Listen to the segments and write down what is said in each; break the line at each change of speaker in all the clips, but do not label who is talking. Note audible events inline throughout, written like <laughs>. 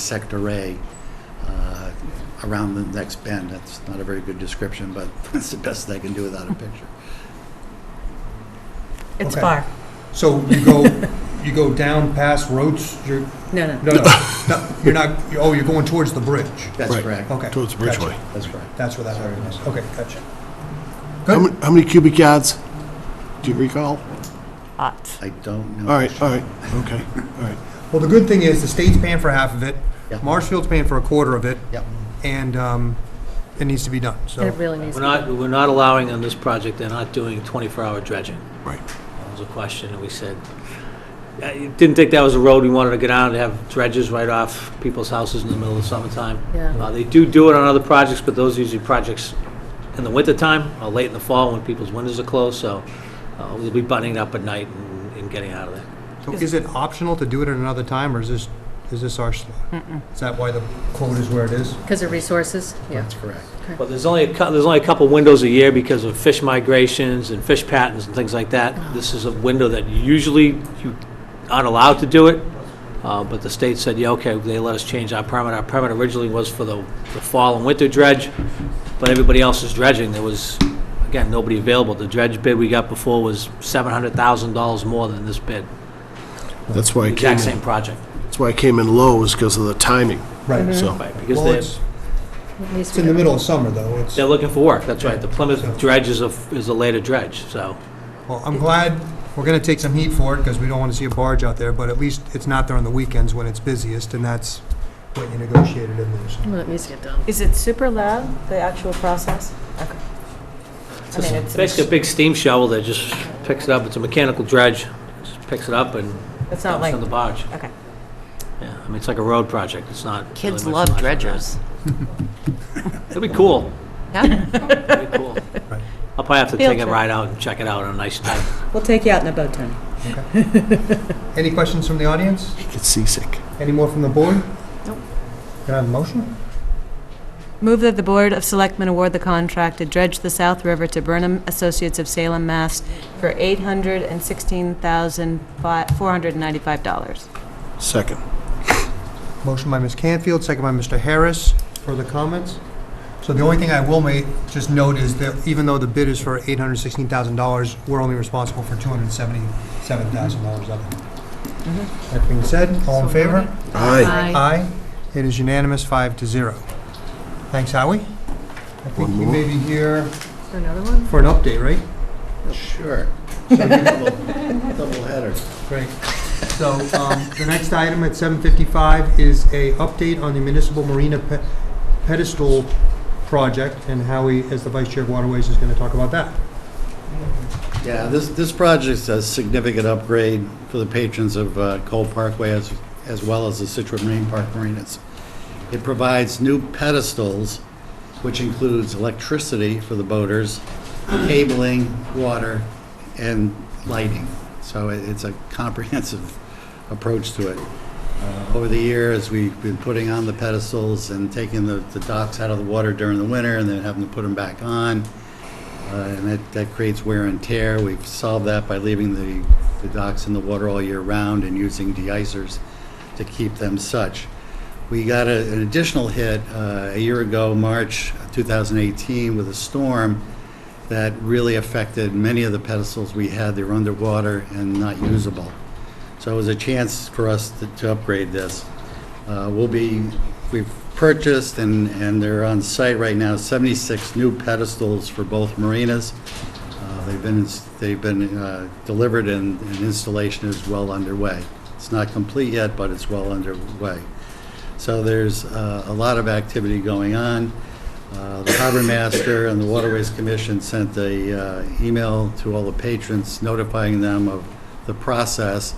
sect array uh, around the next bend. That's not a very good description, but <laughs> that's the best I can do without a picture.
It's
Okay.
far.
So you
<laughs>
go, you go down past Roach, you're,
No, no.
no, no, no, you're not, oh, you're going towards the bridge.
That's
Right.
correct.
Okay.
Towards
gotcha.
Bridgeway.
That's correct.
That's where that area is. Okay, gotcha.
How
Good.
many, how many cubic yards? Do you recall?
Hot.
I don't know.
All right, uh, all right, okay, all right.
Well, the good thing is the state's paying for half of it.
Yeah.
Marshfield's paying for a quarter of it.
Yep.
And, um, it needs to be done, so.
It really needs
We're
to
not, we're not allowing on this project, they're not doing 24-hour dredging.
Right.
That was a question, and we said, I didn't think that was a road we wanted to get on, to have dredges right off people's houses in the middle of the summertime.
Yeah.
Uh, They do do it on other projects, but those are usually projects in the wintertime, or late in the fall, when people's windows are closed, so uh, we'll be buttoning up at night and and getting out of there.
So is it optional to do it at another time, or is this, is this our slot? Is that why the quote is where it is?
Because of resources, yeah.
That's correct.
But there's only, a cou- there's only a couple windows a year because of fish migrations and fish patterns and things like that. This is a window that usually you aren't allowed to do it, uh, but the state said, yeah, okay, they let us change our permit. Our permit originally was for the, the fall and winter dredge, but everybody else is dredging. There was, again, nobody available. The dredge bid we got before was $700,000 more than this bid.
That's why I came,
Exact same
in-
project.
that's why I came in low, is because of the timing,
Right.
so.
Right, because
Well,
they're.
it's,
It needs
it's
to
in the
be-
middle of summer, though. It's,
They're looking for work, that's right. The Plymouth dredge is a, is a later dredge, so.
well, I'm glad we're gonna take some heat for it, because we don't want to see a barge out there, but at least it's not there on the weekends when it's busiest, and that's what you negotiated in there. so.
Well, it needs to get done.
Is it super loud, the actual process? Okay. I mean, it's,
Basically, a big steam shovel that just picks it up, it's a mechanical dredge, just picks it up and
it's not
dumps
like,
on the barge.
okay.
Yeah, I mean, it's like a road project, it's not.
Kids
really much
love
larger than that.
dredgers.
It'd be cool.
Yeah.
It'd be cool.
Right.
I'll probably have to
Field
take a
trip.
ride out and check it out on a nice night.
We'll take you out in a boat, Tony.
Any questions from the audience?
You get seasick.
Any more from the board? Nope. Can I have a motion?
Move that the Board of Selectmen award the contract to dredge the South River to Burnham Associates of Salem, Mass. for $816,495.
Second.
Motion by Ms. Canfield, second by Mr. Harris. Further comments? So the only thing I will make, just note is that even though the bid is for $816,000, we're only responsible for $277,000 of it. That being said, all in favor?
Aye.
Aye. It is unanimous, five to zero. Thanks, Howie. I think
One
you
more.
may be here
Is there another one?
for an update, right?
Sure. So you double <laughs> double header.
Great. So um, the next item at 7:55 is a update on the municipal marina pe- pedestal project, and Howie, as the vice chair of waterways, is going to talk about that.
Yeah, this, this project's a significant upgrade for the patrons of uh, Cole Parkway as, as well as the Situate Marine Park Marinas. It provides new pedestals, which includes electricity for the boaters, cabling, water, and lighting. So it- it's a comprehensive approach to it. Uh, Over the years, we've been putting on the pedestals and taking the the docks out of the water during the winter and then having to put them back on. Uh, and that, that creates wear and tear. We've solved that by leaving the, the docks in the water all year round and using deicers to keep them such. We got a- an additional hit uh, a year ago, March 2018, with a storm that really affected many of the pedestals we had. They were underwater and not usable. So it was a chance for us to- to upgrade this. Uh, We'll be, we've purchased and, and they're on site right now, 76 new pedestals for both marinas. Uh, They've been, ins- they've been uh, delivered and and installation is well underway. It's not complete yet, but it's well underway. So there's uh, a lot of activity going on. Uh, The Harbor Master and the Waterways Commission sent a uh, email to all the patrons notifying them of the process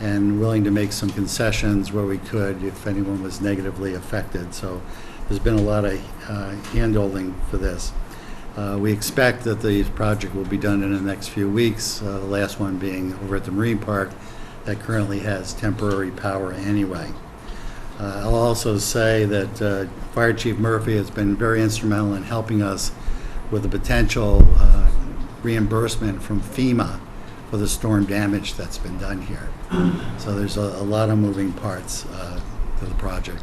and willing to make some concessions where we could if anyone was negatively affected. So there's been a lot of uh, handholding for this. Uh, We expect that the project will be done in the next few weeks, uh, the last one being over at the Marine Park that currently has temporary power anyway. Uh, I'll also say that uh, Fire Chief Murphy has been very instrumental in helping us with the potential uh, reimbursement from FEMA for the storm damage that's been done here. So there's a a lot of moving parts uh, to the project.